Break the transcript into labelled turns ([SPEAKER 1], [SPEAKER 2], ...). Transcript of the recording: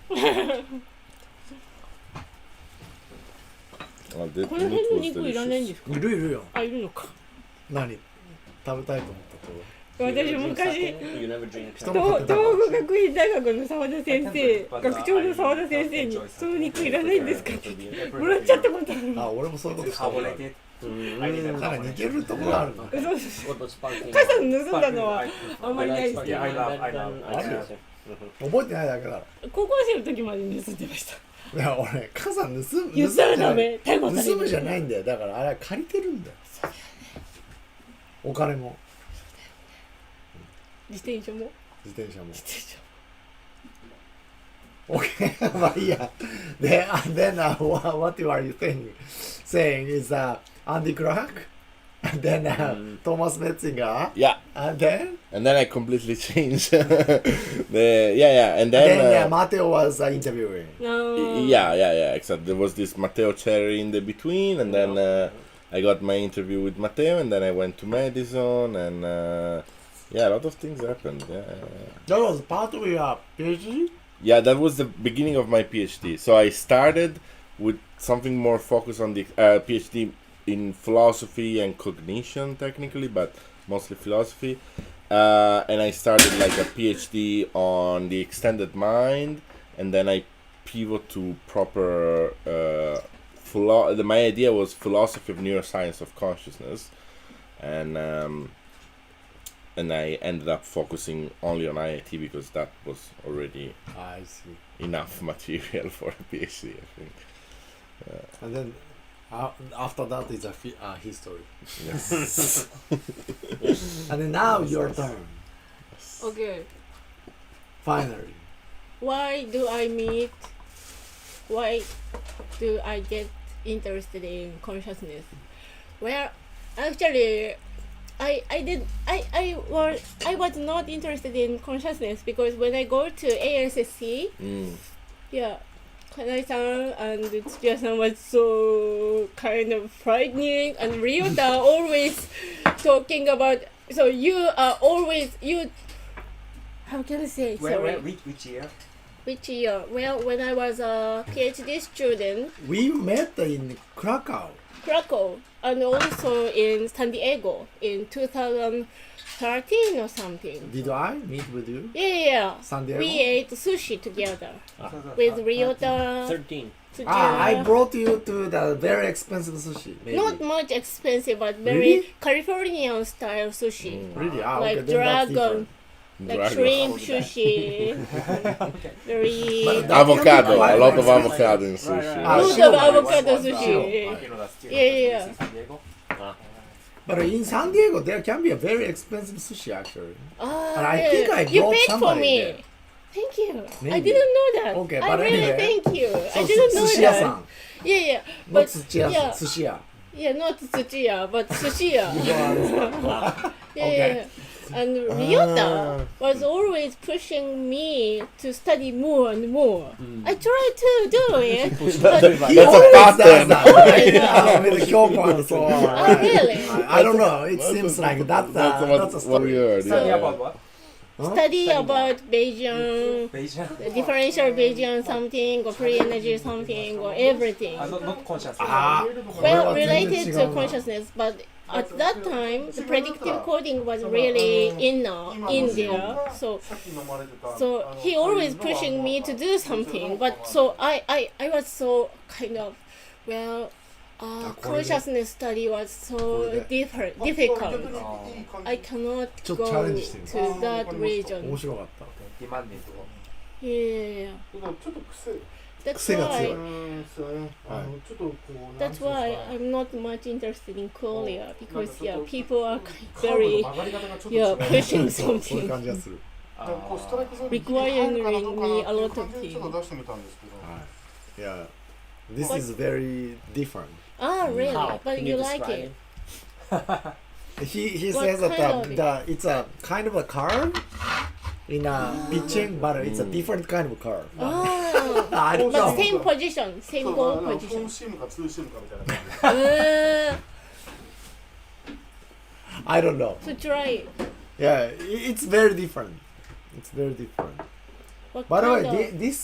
[SPEAKER 1] あで
[SPEAKER 2] この辺の肉いらないんですか
[SPEAKER 3] いるいるよ
[SPEAKER 2] あいるのか
[SPEAKER 3] 何食べたいと思ったと
[SPEAKER 2] 私昔
[SPEAKER 4] You never drink
[SPEAKER 3] 人の
[SPEAKER 2] 東
[SPEAKER 3] 方
[SPEAKER 2] 東北学院大学の澤田先生学長の澤田先生に「その肉いらないんですか?」ってもらっちゃったことある
[SPEAKER 3] あ俺もそういうことしたことある
[SPEAKER 5] carbonated. I need a
[SPEAKER 3] なんか似てるところあるな
[SPEAKER 2] 嘘です
[SPEAKER 4] お母
[SPEAKER 2] 母さん盗んだのは
[SPEAKER 5] I,
[SPEAKER 2] あんまりないですけど
[SPEAKER 5] I love, I love. I
[SPEAKER 3] あるよ 覚えてないだけだろ
[SPEAKER 2] 高校生の時まで盗んでました
[SPEAKER 3] いや俺母さん盗む
[SPEAKER 2] 言ったらダメ
[SPEAKER 3] 盗
[SPEAKER 2] 逮捕
[SPEAKER 3] むじゃな
[SPEAKER 2] される
[SPEAKER 3] い盗むじゃないんだよだからあれは借りてるんだよお金も
[SPEAKER 2] 自転車も
[SPEAKER 3] 自転車も
[SPEAKER 2] 自転車も
[SPEAKER 3] オッケー、まあいいや。で、あ then、uh, what, what you are you saying? saying is、uh, Andy Clark? And then、uh, Thomas Metzinger?
[SPEAKER 1] Yeah,
[SPEAKER 3] And then?
[SPEAKER 1] and then I completely changed. the, yeah, yeah, and then.
[SPEAKER 3] Then、uh,
[SPEAKER 1] uh,
[SPEAKER 3] Matteo was、uh, interviewing.
[SPEAKER 2] あー
[SPEAKER 1] yeah, yeah, yeah. Except there was this Matteo Cherry in the between, and then uh, I got my interview with Matteo, and then I went to Madison, and uh, yeah, a lot of things happened. Yeah, yeah, yeah.
[SPEAKER 3] That was part of your PhD?
[SPEAKER 1] yeah, that was the beginning of my PhD. So I started with something more focused on the uh, PhD in philosophy and cognition, technically, but mostly philosophy. Uh, and I started like a PhD on the extended mind, and then I pivot to proper. Uh, philo- the, my idea was philosophy of neuroscience of consciousness, and um, and I ended up focusing only on IIT because that was already
[SPEAKER 3] I see.
[SPEAKER 1] enough material for a PhD, I think.
[SPEAKER 3] And then, uh, after that is a fi- uh, history.
[SPEAKER 1] Yes.
[SPEAKER 2] Mm.
[SPEAKER 3] And then now your turn,
[SPEAKER 2] Okay
[SPEAKER 3] finally.
[SPEAKER 2] Why do I meet? Why do I get interested in consciousness? Well, actually, I I did I I was I was not interested in consciousness because when I go to ASSC,
[SPEAKER 1] mm.
[SPEAKER 2] yeah, Kanai-san and Tsuya-san was so kind of frightening, and Ryota always talking about. So you are always you. How can I say?
[SPEAKER 5] Where,
[SPEAKER 2] Sorry
[SPEAKER 5] where, which, which year?
[SPEAKER 2] which year? Well, when I was a PhD student,
[SPEAKER 3] We met in Krakow.
[SPEAKER 2] Krakow, and also in San Diego in 2013 or something.
[SPEAKER 3] Did I meet with you?
[SPEAKER 2] Yeah, yeah, yeah.
[SPEAKER 3] San Diego?
[SPEAKER 2] We ate sushi together
[SPEAKER 5] Ah.
[SPEAKER 2] with Ryota,
[SPEAKER 4] 13
[SPEAKER 2] Tsujiya.
[SPEAKER 3] Ah, I brought you to the very expensive sushi. Maybe.
[SPEAKER 2] Not much expensive, but very
[SPEAKER 3] Really?
[SPEAKER 2] Californian style sushi,
[SPEAKER 3] really. Ah,
[SPEAKER 2] like
[SPEAKER 3] okay, then that's
[SPEAKER 2] dragon,
[SPEAKER 3] different.
[SPEAKER 2] like
[SPEAKER 1] Dragon.
[SPEAKER 2] shrimp sushi. very
[SPEAKER 3] But that
[SPEAKER 1] Avocado,
[SPEAKER 3] can't
[SPEAKER 1] a
[SPEAKER 3] be
[SPEAKER 1] lot of
[SPEAKER 3] quite expensive.
[SPEAKER 1] avocado in
[SPEAKER 5] Right,
[SPEAKER 1] sushi.
[SPEAKER 5] right.
[SPEAKER 3] Ah,
[SPEAKER 2] Lots
[SPEAKER 3] shrimp.
[SPEAKER 2] of avocado
[SPEAKER 5] Shrimp.
[SPEAKER 2] sushi.
[SPEAKER 5] You know that's still
[SPEAKER 2] Yeah, yeah,
[SPEAKER 5] in San Diego.
[SPEAKER 3] But in San Diego, there can be a very expensive sushi actually.
[SPEAKER 2] Ah,
[SPEAKER 3] And I
[SPEAKER 2] yeah.
[SPEAKER 3] think I
[SPEAKER 2] you
[SPEAKER 3] brought
[SPEAKER 2] paid for
[SPEAKER 3] somebody
[SPEAKER 2] me.
[SPEAKER 3] there.
[SPEAKER 2] Thank you. I
[SPEAKER 3] Maybe.
[SPEAKER 2] didn't know that.
[SPEAKER 3] Okay,
[SPEAKER 2] I
[SPEAKER 3] but
[SPEAKER 2] really
[SPEAKER 3] anyway.
[SPEAKER 2] thank you. I
[SPEAKER 3] So,
[SPEAKER 2] didn't know
[SPEAKER 3] sushi
[SPEAKER 2] that.
[SPEAKER 3] san
[SPEAKER 2] Yeah, yeah.
[SPEAKER 3] not
[SPEAKER 2] But
[SPEAKER 3] sushiya,
[SPEAKER 2] yeah,
[SPEAKER 3] sushiya.
[SPEAKER 2] yeah, not Tsuchiya, but Sushiya.
[SPEAKER 3] You understand?
[SPEAKER 2] yeah,
[SPEAKER 3] Okay. Uh,
[SPEAKER 2] yeah. And Ryota was always pushing me to study more and more.
[SPEAKER 3] Hmm.
[SPEAKER 2] I tried to do it, but
[SPEAKER 3] He
[SPEAKER 1] That's a
[SPEAKER 3] always does
[SPEAKER 1] pattern.
[SPEAKER 3] that, right? Yeah, with Kyoko and so on.
[SPEAKER 2] oh really?
[SPEAKER 3] I, I don't know. It seems like that's a,
[SPEAKER 1] that's what,
[SPEAKER 3] that's a
[SPEAKER 1] what we
[SPEAKER 3] story.
[SPEAKER 1] heard.
[SPEAKER 5] Study
[SPEAKER 1] yeah.
[SPEAKER 5] about what?
[SPEAKER 2] Study about Bayesian,
[SPEAKER 5] Beijing.
[SPEAKER 2] differential Bayesian something, or free energy something, or everything.
[SPEAKER 5] Ah, not, not conscious.
[SPEAKER 3] Ah,
[SPEAKER 2] Well,
[SPEAKER 3] Well,
[SPEAKER 2] related to
[SPEAKER 3] attention.
[SPEAKER 2] consciousness, but at that time, the predictive coding was really in now in there. So, so he always pushing me to do something. But so I, I, I was so kind of, well, uh, consciousness study was so different, difficult. I cannot
[SPEAKER 3] Just
[SPEAKER 2] go
[SPEAKER 3] challenge things.
[SPEAKER 2] to that region.
[SPEAKER 3] 面白かった。
[SPEAKER 5] Demanding.
[SPEAKER 2] Yeah, yeah, yeah.
[SPEAKER 6] ちょっと癖、
[SPEAKER 2] that's
[SPEAKER 3] 癖が強い
[SPEAKER 2] why.
[SPEAKER 6] うん、そうね。あの、ちょっとこう、
[SPEAKER 2] That's why I'm not much interested in Korea because yeah, people are kind of very
[SPEAKER 6] 曲がり方がちょっ と
[SPEAKER 2] yeah
[SPEAKER 6] 違う。
[SPEAKER 2] pushing
[SPEAKER 3] そういう
[SPEAKER 2] something.
[SPEAKER 3] 感じがする。
[SPEAKER 6] こうストライクゾーン
[SPEAKER 2] Requiring
[SPEAKER 6] に入る
[SPEAKER 2] me
[SPEAKER 6] かな
[SPEAKER 2] a
[SPEAKER 6] どう
[SPEAKER 2] lot
[SPEAKER 6] かな
[SPEAKER 2] of
[SPEAKER 6] っていう感じ
[SPEAKER 2] things.
[SPEAKER 6] でちょっと出してみたんですけど。
[SPEAKER 3] Yeah. This is very different.
[SPEAKER 2] Ah, really?
[SPEAKER 5] How?
[SPEAKER 2] But
[SPEAKER 5] Can
[SPEAKER 2] you,
[SPEAKER 5] you
[SPEAKER 2] like
[SPEAKER 5] describe
[SPEAKER 2] it?
[SPEAKER 3] He he
[SPEAKER 2] What
[SPEAKER 3] says that
[SPEAKER 2] kind
[SPEAKER 3] uh,
[SPEAKER 2] of-
[SPEAKER 3] the, it's a kind of a curve in a pitching, but it's
[SPEAKER 1] Hmm.
[SPEAKER 3] a different kind of curve.
[SPEAKER 2] Ah,
[SPEAKER 3] I don't
[SPEAKER 2] but
[SPEAKER 3] know.
[SPEAKER 2] same position, same
[SPEAKER 6] そう
[SPEAKER 2] goal
[SPEAKER 6] あのフォー
[SPEAKER 2] position.
[SPEAKER 6] ムシームかツーシームかみたいな感じで。
[SPEAKER 2] Uh,
[SPEAKER 3] I don't know.
[SPEAKER 2] to try. it.
[SPEAKER 3] Yeah, i- it's very different. It's very different.
[SPEAKER 2] What
[SPEAKER 3] By the way,
[SPEAKER 2] kind of-
[SPEAKER 3] thi- this